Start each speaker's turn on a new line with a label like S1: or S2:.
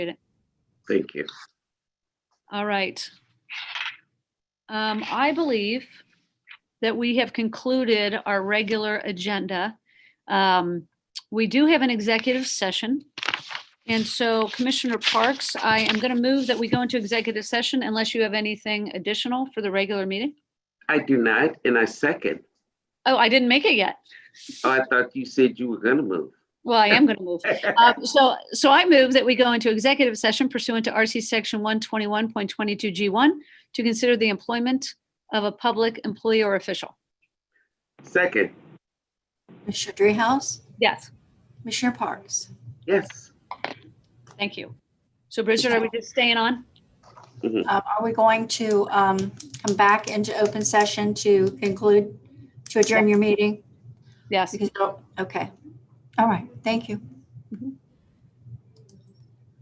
S1: Thank you.
S2: All right. Um, I believe that we have concluded our regular agenda. Um, we do have an executive session. And so Commissioner Parks, I am going to move that we go into executive session unless you have anything additional for the regular meeting.
S1: I do not, and I second.
S2: Oh, I didn't make it yet.
S1: Oh, I thought you said you were gonna move.
S2: Well, I am going to move. Um, So, so I move that we go into executive session pursuant to RC Section 121.22G1 to consider the employment of a public employee or official.
S1: Second,
S3: Commissioner Dreehouse,
S2: Yes,
S3: Commissioner Parks.
S1: yes.
S2: thank you. So Bridget, are we just staying on?
S3: Um, Are we going to um, come back into open session to conclude, to adjourn your meeting?
S2: Yes.
S3: Because- Okay. All right. Thank you.